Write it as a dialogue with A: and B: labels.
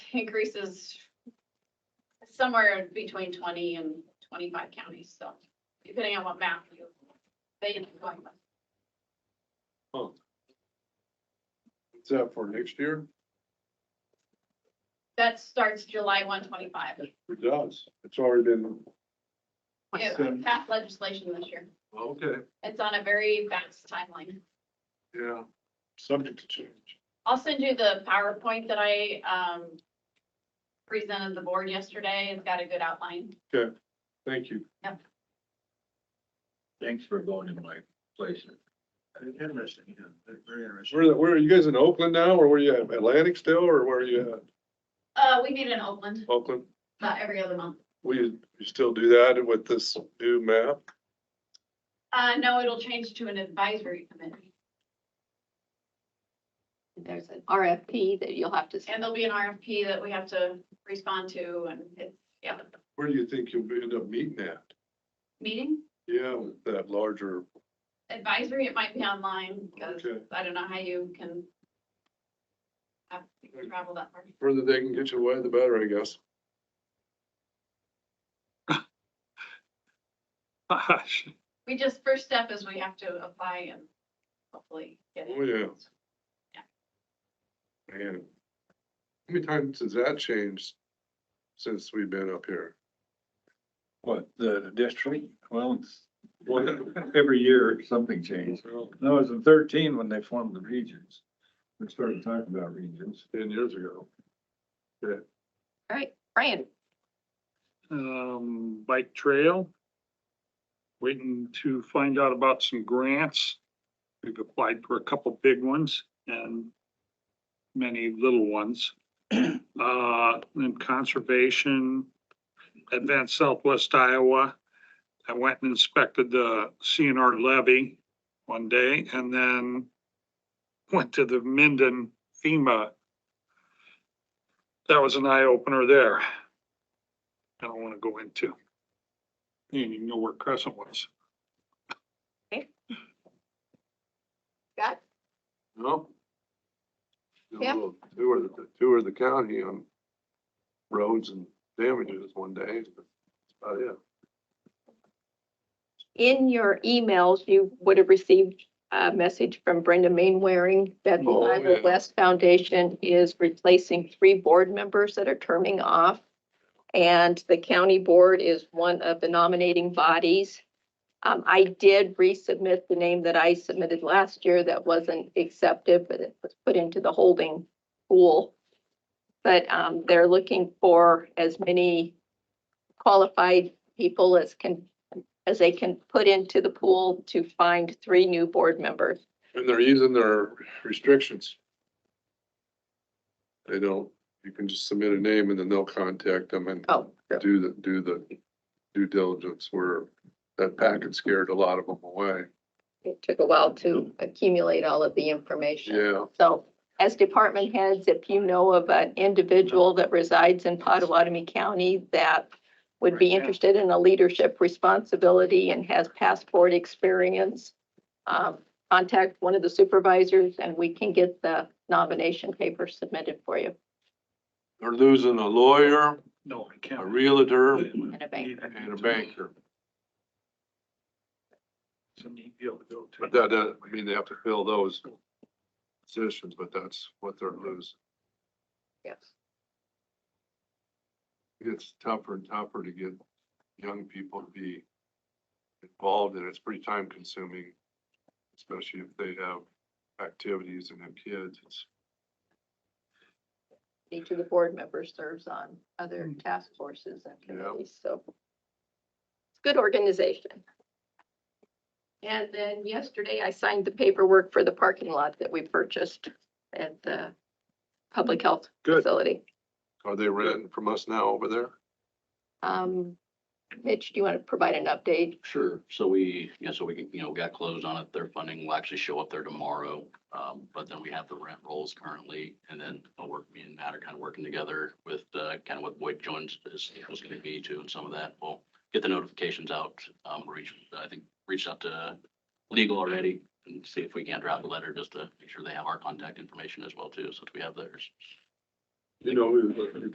A: increases somewhere between twenty and twenty-five counties, so depending on what map you, they end up going with.
B: Is that for next year?
A: That starts July one twenty-five.
B: It does. It's already been,
A: It passed legislation this year.
B: okay,
A: It's on a very fast timeline.
B: yeah, subject to change.
A: I'll send you the PowerPoint that I, um, presented the board yesterday. It's got a good outline.
B: Thank you.
C: Thanks for going to my place.
D: Interesting, yeah, very interesting.
B: Where, where, are you guys in Oakland now, or where you at, Atlantic still, or where are you at,
A: Uh, we meet in Oakland
B: Oakland?
A: about every other month.
B: Will you, you still do that with this new map?
A: Uh, no, it'll change to an advisory committee
E: There's an RFP that you'll have to.
A: and there'll be an RFP that we have to respond to and it's, yeah,
B: Where do you think you'll end up meeting at?
A: meeting.
B: Yeah, with that larger,
A: Advisory, it might be online because
B: Okay.
A: I don't know how you can have
B: Mm.
A: people travel that far.
B: further they can get you away, the better, I guess.
D: Gosh.
A: We just, first step is we have to apply and hopefully get it.
B: Oh, yeah.
A: Yeah.
B: Man, how many times has that changed since we've been up here?
C: What, the district? Well, it's, every year something changes. No, it was in thirteen when they formed the regions. We started talking about regions.
B: Ten years ago.
E: All right, Brian,
D: Um, bike trail. Waiting to find out about some grants. We've applied for a couple big ones and many little ones. Uh, and conservation, Advanced Southwest Iowa. I went and inspected the CNR levy one day and then went to the Minden FEMA. That was an eye opener there. I don't want to go into. And you know where Crescent was.
E: Scott,
B: No?
E: Yeah.
B: Two are the, two are the county on roads and damages one day, but that's about it.
E: in your emails, you would have received a message from Brenda Mainwaring that the
B: Oh,
E: Iowa
B: yeah.
E: West Foundation is replacing three board members that are terming off. And the county board is one of the nominating bodies. Um, I did resubmit the name that I submitted last year that wasn't accepted, but it was put into the holding pool. But, um, they're looking for as many qualified people as can, as they can put into the pool to find three new board members.
B: And they're using their restrictions. They don't, you can just submit a name and then they'll contact them and
E: Oh, sure.
B: do the, do the due diligence where that packet scared a lot of them away.
E: it took a while to accumulate all of the information.
B: Yeah,
E: So as department heads, if you know of an individual that resides in Potawatomi County that would
D: Right,
E: be
D: yeah.
E: interested in a leadership responsibility and has past board experience, um, contact one of the supervisors and we can get the nomination paper submitted for you
B: they're losing a lawyer,
D: No, I
B: a
D: can't.
B: realtor
E: in a bank.
B: and a banker.
D: It's a neat deal to go to.
B: But that doesn't mean they have to fill those positions, but that's what they're losing.
E: Yes.
B: It's tougher and tougher to get young people to be involved and it's pretty time consuming. Especially if they have activities and have kids. It's,
E: Each of the board members serves on other task forces and
B: Yeah.
E: committees, so. It's good organization. And then yesterday I signed the paperwork for the parking lot that we purchased at the public health
D: Good.
E: facility.
B: are they renting from us now over there?
E: Um, Mitch, do you want to provide an update?
F: Sure. So we, yeah, so we, you know, got closed on it. Their funding will actually show up there tomorrow. Um, but then we have the rent rolls currently and then I'll work, me and Matt are kind of working together with, uh, kind of what Boyd Jones is, was going to be too. And some of that, we'll get the notifications out. Um, reach, I think, reached out to legal already and see if we can not drop a letter just to make sure they have our contact information as well too. So that we have theirs.
C: You know, it was-